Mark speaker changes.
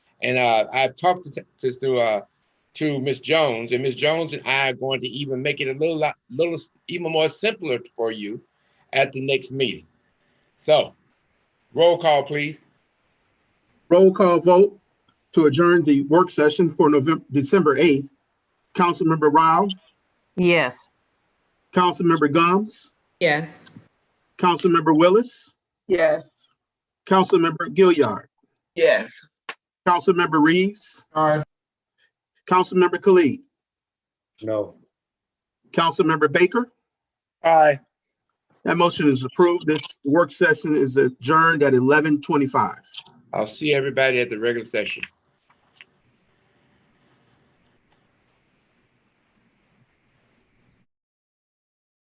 Speaker 1: And uh, I've talked to to, to, uh, to Miss Jones, and Miss Jones and I are going to even make it a little lot- little even more simpler for you at the next meeting. So, roll call, please.
Speaker 2: Roll call vote to adjourn the work session for November, December 8th. Councilmember Rao,
Speaker 3: Yes.
Speaker 2: Councilmember Gomes,
Speaker 4: Yes.
Speaker 2: Councilmember Willis,
Speaker 3: Yes.
Speaker 2: Councilmember Gilliard,
Speaker 5: Yes.
Speaker 2: Councilmember Reeves. Aye. Councilmember Khalid,
Speaker 6: No.
Speaker 2: Councilmember Baker.
Speaker 6: Aye.
Speaker 2: That motion is approved. This work session is adjourned at 11:25.
Speaker 1: I'll see everybody at the regular session.